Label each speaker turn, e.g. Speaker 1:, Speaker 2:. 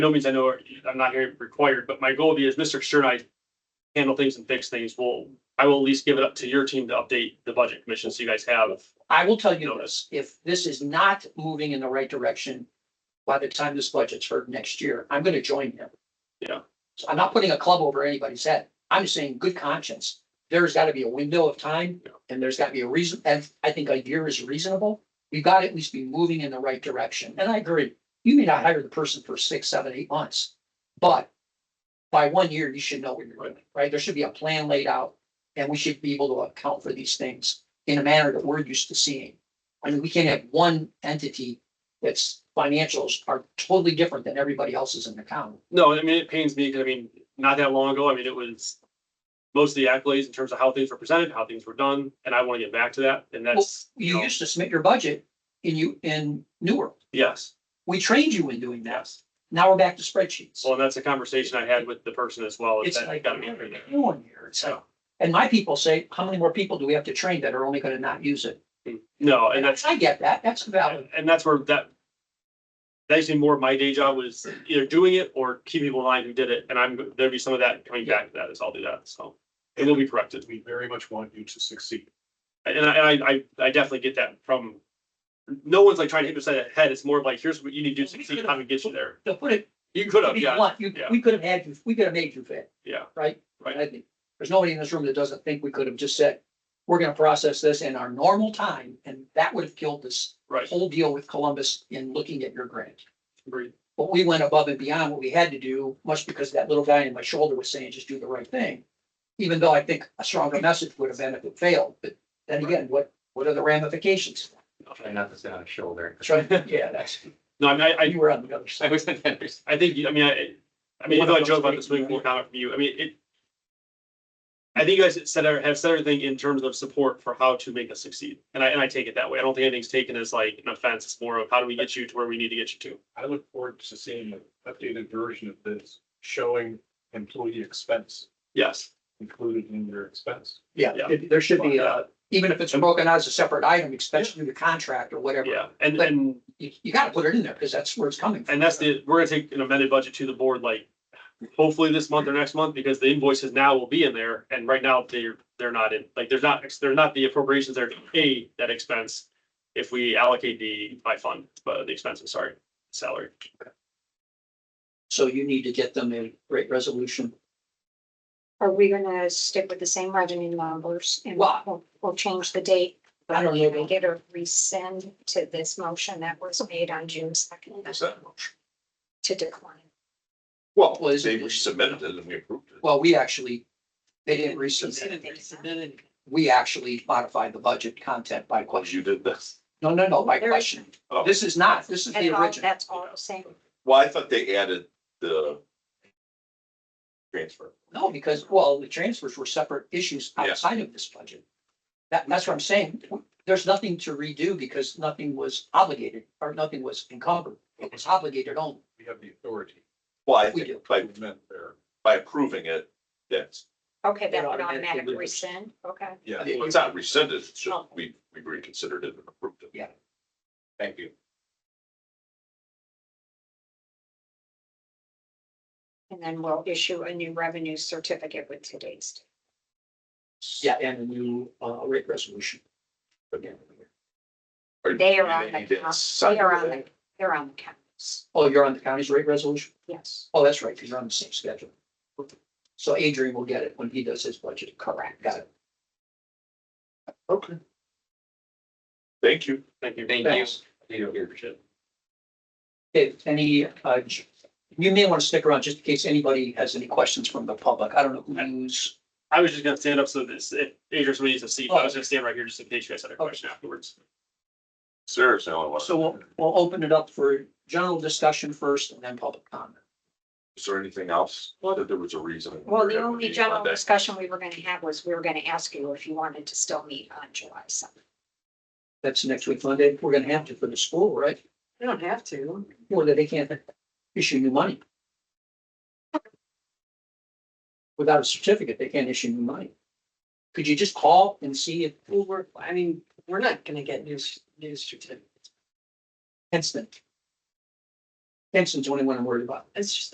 Speaker 1: no means I know, I'm not here required, but my goal is Mr. Stern, and I handle things and fix things. Well, I will at least give it up to your team to update the budget commission so you guys have
Speaker 2: I will tell you
Speaker 1: notice.
Speaker 2: this, if this is not moving in the right direction, by the time this budget's heard next year, I'm gonna join him.
Speaker 1: Yeah.
Speaker 2: So I'm not putting a club over anybody's head. I'm just saying good conscience. There's gotta be a window of time
Speaker 1: Yeah.
Speaker 2: and there's gotta be a reason, and I think a year is reasonable. We've got to at least be moving in the right direction. And I agree. You may not hire the person for six, seven, eight months, but by one year, you should know what you're doing, right? There should be a plan laid out and we should be able to account for these things in a manner that we're used to seeing. I mean, we can't have one entity that's financials are totally different than everybody else's in the county.
Speaker 1: No, I mean, it pains me because I mean, not that long ago, I mean, it was most of the accolades in terms of how things were presented, how things were done, and I want to get back to that. And that's, you
Speaker 2: You
Speaker 1: know,
Speaker 2: used to submit your budget in you, in New World.
Speaker 1: yes,
Speaker 2: We trained you in doing that.
Speaker 1: yes.
Speaker 2: Now we're back to spreadsheets.
Speaker 1: Well, and that's a conversation I had with the person as well. is
Speaker 2: It's
Speaker 1: that
Speaker 2: like,
Speaker 1: gotta
Speaker 2: what
Speaker 1: be
Speaker 2: are
Speaker 1: improved.
Speaker 2: you doing here? It's like, and my people say, how many more people do we have to train that are only gonna not use it?
Speaker 1: No, and
Speaker 2: And
Speaker 1: that's,
Speaker 2: I get that. That's valid.
Speaker 1: and that's where that that actually more of my day job was either doing it or keep people in line who did it. And I'm, there'd be some of that coming back to that as I'll do that. So it will be corrected.
Speaker 3: We very much want you to succeed.
Speaker 1: And I, and I, I, I definitely get that from, no one's like trying to hit beside the head. It's more of like, here's what you need to do to succeed, how to get you there.
Speaker 2: To put it,
Speaker 1: You could
Speaker 2: to
Speaker 1: have,
Speaker 2: be
Speaker 1: yeah,
Speaker 2: blunt, you, we could have had you, we could have made you fit.
Speaker 1: yeah,
Speaker 2: right?
Speaker 1: Right.
Speaker 2: I think There's nobody in this room that doesn't think we could have just said, we're gonna process this in our normal time, and that would have killed this
Speaker 1: right.
Speaker 2: whole deal with Columbus in looking at your grant.
Speaker 1: Agreed.
Speaker 2: But we went above and beyond what we had to do, much because that little guy in my shoulder was saying, just do the right thing. Even though I think a stronger message would have been if it failed, but then again, what, what are the ramifications?
Speaker 4: Try not to sit on a shoulder.
Speaker 2: That's right. Yeah, that's,
Speaker 1: No, I mean, I, I,
Speaker 2: you were on the other side.
Speaker 4: I was on the other side.
Speaker 1: I think, you- I mean, I, I mean, I know I joke about this week, more comment from you. I mean, it. I think you guys said, have said everything in terms of support for how to make us succeed. And I, and I take it that way. I don't think anything's taken as like an offense. It's more of how do we get you to where we need to get you to?
Speaker 3: I look forward to seeing an updated version of this showing employee expense
Speaker 1: Yes.
Speaker 3: included in their expense.
Speaker 2: Yeah,
Speaker 1: Yeah.
Speaker 2: it- there should be, uh, even if it's broken out as a separate item, especially through the contract or whatever,
Speaker 1: Yeah. And, and,
Speaker 2: you, you gotta put it in there, because that's where it's coming from.
Speaker 1: and that's the, we're gonna take an amended budget to the board like hopefully this month or next month because the invoices now will be in there. And right now they're, they're not in, like, there's not, there's not the appropriations there to pay that expense if we allocate the, by fund, but the expenses, sorry, salary.
Speaker 2: So you need to get them a great resolution.
Speaker 5: Are we gonna stick with the same revenue numbers? and
Speaker 2: Well-
Speaker 5: We'll, we'll change the date.
Speaker 2: I don't
Speaker 5: Can I
Speaker 2: know.
Speaker 5: get a rescind to this motion that was made on June second to decline?
Speaker 6: Well,
Speaker 2: Well, is it-
Speaker 6: they submitted it and we approved it.
Speaker 2: Well, we actually, they didn't resubmit. We actually modified the budget content by
Speaker 6: Well,
Speaker 2: question.
Speaker 6: you did this.
Speaker 2: No, no, no, by
Speaker 5: There is-
Speaker 2: question.
Speaker 6: Oh.
Speaker 2: This is not, this is
Speaker 5: That's
Speaker 2: the
Speaker 5: all-
Speaker 2: original.
Speaker 5: That's all the same.
Speaker 6: Well, I thought they added the transfer.
Speaker 2: No, because, well, the transfers were separate issues
Speaker 6: Yeah.
Speaker 2: outside of this budget. That, that's what I'm saying. There's nothing to redo because nothing was obligated or nothing was encumbered. It was obligated only.
Speaker 3: We have the authority
Speaker 6: Well, I
Speaker 2: We do.
Speaker 6: think
Speaker 3: to
Speaker 6: by,
Speaker 3: amend their,
Speaker 6: by approving it, that's,
Speaker 5: Okay,
Speaker 2: It
Speaker 5: that would
Speaker 2: automatically
Speaker 5: automatic
Speaker 2: moves.
Speaker 5: rescind, okay.
Speaker 3: yeah.
Speaker 2: Yeah.
Speaker 6: well, it's not rescinded, it's just we, we reconsidered it and approved it.
Speaker 2: Yeah.
Speaker 6: Thank you.
Speaker 5: And then we'll issue a new revenue certificate with today's.
Speaker 2: Yeah, and a new, uh, rate resolution.
Speaker 6: Or
Speaker 5: They are
Speaker 6: do
Speaker 5: on
Speaker 6: need
Speaker 5: the,
Speaker 6: to
Speaker 5: count-
Speaker 6: sign
Speaker 5: they are on the,
Speaker 6: it?
Speaker 5: they're on the counts,
Speaker 2: Oh, you're on the county's rate resolution?
Speaker 5: yes.
Speaker 2: Oh, that's right, because you're on the same schedule. So Adrian will get it when he does his budget. Correct. Got it.
Speaker 6: Okay. Thank you.
Speaker 1: Thank you.
Speaker 4: Thank you. You don't hear shit.
Speaker 2: If any, uh, j- you may want to stick around just in case anybody has any questions from the public. I don't know who's,
Speaker 1: I was just gonna stand up so this, if Adrian somebody needs a seat, I was gonna stand right here just in case you guys had a question afterwards.
Speaker 6: Sarah's the only one.
Speaker 2: so we'll, we'll open it up for general discussion first and then public comment.
Speaker 6: Is there anything else?
Speaker 5: Well-
Speaker 6: That there was a reason.
Speaker 5: Well,
Speaker 6: we
Speaker 5: the
Speaker 6: had
Speaker 5: only
Speaker 6: meeting
Speaker 5: general
Speaker 6: Monday?
Speaker 5: discussion we were gonna have was, we were gonna ask you if you wanted to still meet on July seventh.
Speaker 2: That's next week Monday. We're gonna have to for the school, right?
Speaker 7: They don't have to.
Speaker 2: Or that they can't issue new money. Without a certificate, they can't issue new money. Could you just call and see if
Speaker 7: Well, we're, I mean, we're not gonna get news, news certificates.
Speaker 2: Hensman
Speaker 8: Kingston's the only one I'm worried about.
Speaker 2: it's just